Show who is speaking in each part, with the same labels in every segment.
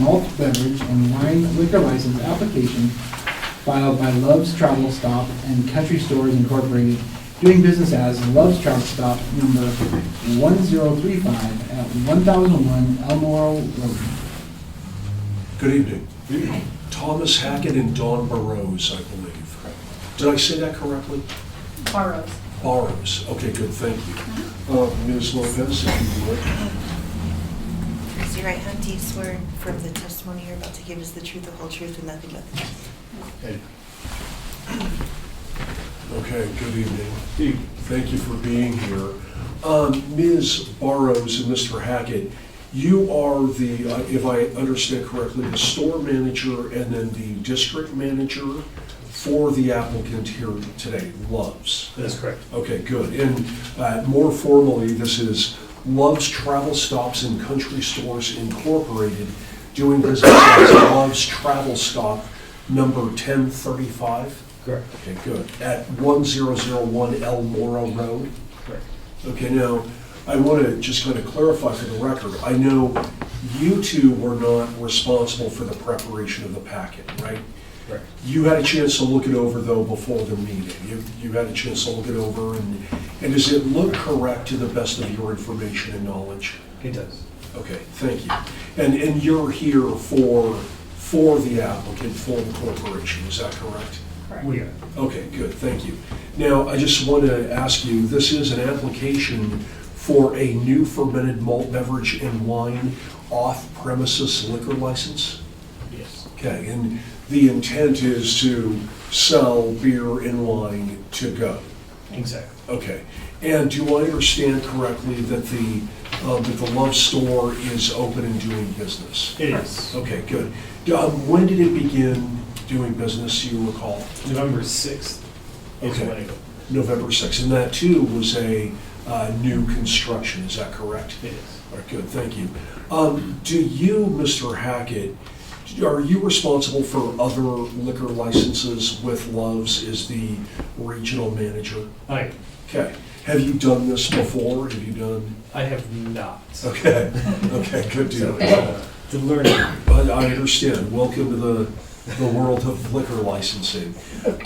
Speaker 1: malt beverage and wine liquor license application filed by Love's Travel Stop and Country Stores Incorporated, doing business as Love's Travel Stop, number 1035 at 1001 Elmore Road.
Speaker 2: Good evening. Thomas Hackett and Dawn Burrows, I believe. Did I say that correctly?
Speaker 3: Borrows.
Speaker 2: Burrows. Okay, good, thank you. Uh, Ms. Lopez, if you would.
Speaker 4: Raise your right hand, do you swear from the testimony you're about to give is the truth, the whole truth, and nothing but the truth?
Speaker 2: Okay, good evening. Thank you for being here. Um, Ms. Burrows and Mr. Hackett, you are the, uh, if I understand correctly, the store manager and then the district manager for the applicant here today, Loves.
Speaker 5: That's correct.
Speaker 2: Okay, good. And uh, more formally, this is Love's Travel Stops and Country Stores Incorporated, doing business as Love's Travel Stop, number 1035?
Speaker 5: Correct.
Speaker 2: Okay, good. At 1001 El Moro Road?
Speaker 5: Correct.
Speaker 2: Okay, now, I want to just kind of clarify for the record, I know you two were not responsible for the preparation of the packet, right?
Speaker 5: Correct.
Speaker 2: You had a chance to look it over though before the meeting. You, you had a chance to look it over and, and does it look correct to the best of your information and knowledge?
Speaker 5: It does.
Speaker 2: Okay, thank you. And, and you're here for, for the applicant, for the corporation, is that correct?
Speaker 3: Correct.
Speaker 5: We are.
Speaker 2: Okay, good, thank you. Now, I just want to ask you, this is an application for a new fermented malt beverage and wine off-premises liquor license?
Speaker 5: Yes.
Speaker 2: Okay, and the intent is to sell beer and wine to go?
Speaker 5: Exactly.
Speaker 2: Okay, and do I understand correctly that the, um, that the Love Store is open and doing business?
Speaker 5: It is.
Speaker 2: Okay, good. Um, When did it begin doing business, you recall?
Speaker 5: Oh, November 6th is
Speaker 2: Okay.
Speaker 5: when it
Speaker 2: November 6th, and that too was a uh, new construction, is that correct?
Speaker 5: it is.
Speaker 2: All right, good, thank you. Um, Do you, Mr. Hackett, are you responsible for other liquor licenses with Loves as the regional manager?
Speaker 5: I,
Speaker 2: Okay, have you done this before? Have you done?
Speaker 5: I have not.
Speaker 2: Okay, okay, good
Speaker 5: So,
Speaker 2: deal.
Speaker 5: uh, The learning,
Speaker 2: But I understand. Welcome to the, the world of liquor licensing.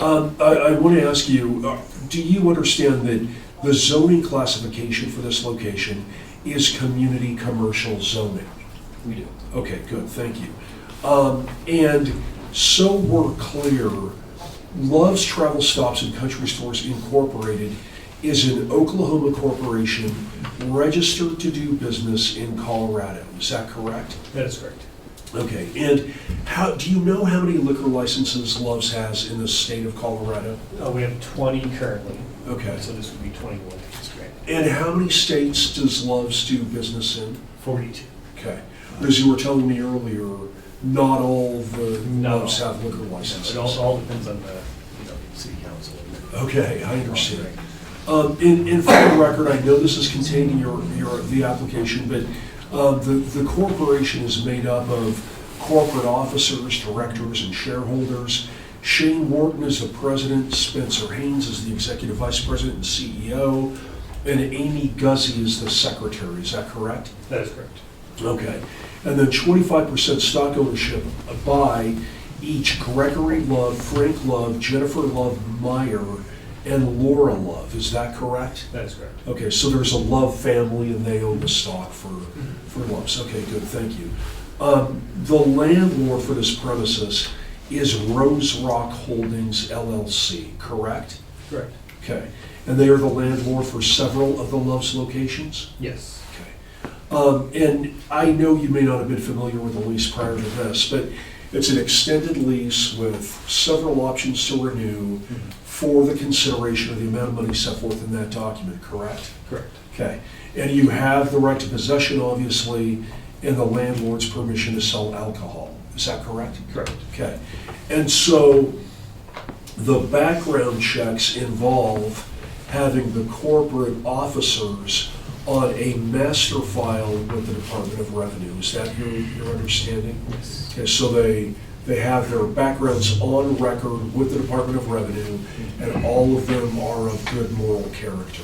Speaker 2: Um, I, I want to ask you, uh, do you understand that the zoning classification for this location is community commercial zoning?
Speaker 5: we do.
Speaker 2: Okay, good, thank you. Um, and so we're clear, Love's Travel Stops and Country Stores Incorporated is an Oklahoma corporation registered to do business in Colorado. Is that correct?
Speaker 5: That is correct.
Speaker 2: Okay, and how, do you know how many liquor licenses Love's has in the state of Colorado?
Speaker 5: Uh, We have 20 currently,
Speaker 2: Okay.
Speaker 5: so this would be 21. That's great.
Speaker 2: And how many states does Love's do business in?
Speaker 5: 42.
Speaker 2: Okay. As you were telling me earlier, not all the
Speaker 5: No.
Speaker 2: Love's have liquor
Speaker 5: It
Speaker 2: licenses.
Speaker 5: all- all depends on the, you know, city council.
Speaker 2: Okay, Oh, I understand. Um, And and for the record, I know this is contained in your, your, the application, but uh, the the corporation is made up of corporate officers, directors, and shareholders. Shane Wharton is the president, Spencer Haynes is the executive vice president and CEO, and Amy Guzzi is the secretary, is that correct?
Speaker 5: That is correct.
Speaker 2: Okay. And then twenty-five percent stock ownership by each Gregory Love, Frank Love, Jennifer Love Meyer, and Laura Love. Is that correct?
Speaker 5: That is correct.
Speaker 2: Okay, so there's a Love family and they own the stock for, for Love's. Okay, good, thank you. Um, the landlord for this premises is Rose Rock Holdings LLC, correct?
Speaker 5: Correct.
Speaker 2: Okay. And they are the landlord for several of the Love's locations?
Speaker 5: Yes.
Speaker 2: Okay. Um, And I know you may not have been familiar with the lease prior to this, but it's an extended lease with several options to renew for the consideration of the amount of money set forth in that document, correct?
Speaker 5: Correct.
Speaker 2: Okay. And you have the right to possession, obviously, and the landlord's permission to sell alcohol. Is that correct?
Speaker 5: Correct.
Speaker 2: Okay. And so the background checks involve having the corporate officers on a master file with the Department of Revenue. Is that your, your understanding?
Speaker 5: Yes.
Speaker 2: Okay, so they, they have their backgrounds on record with the Department of Revenue, and all of them are of good moral character.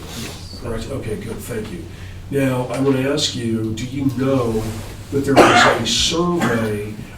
Speaker 2: Correct? Okay, good, thank you. Now, I want to ask you, do you know but there was a survey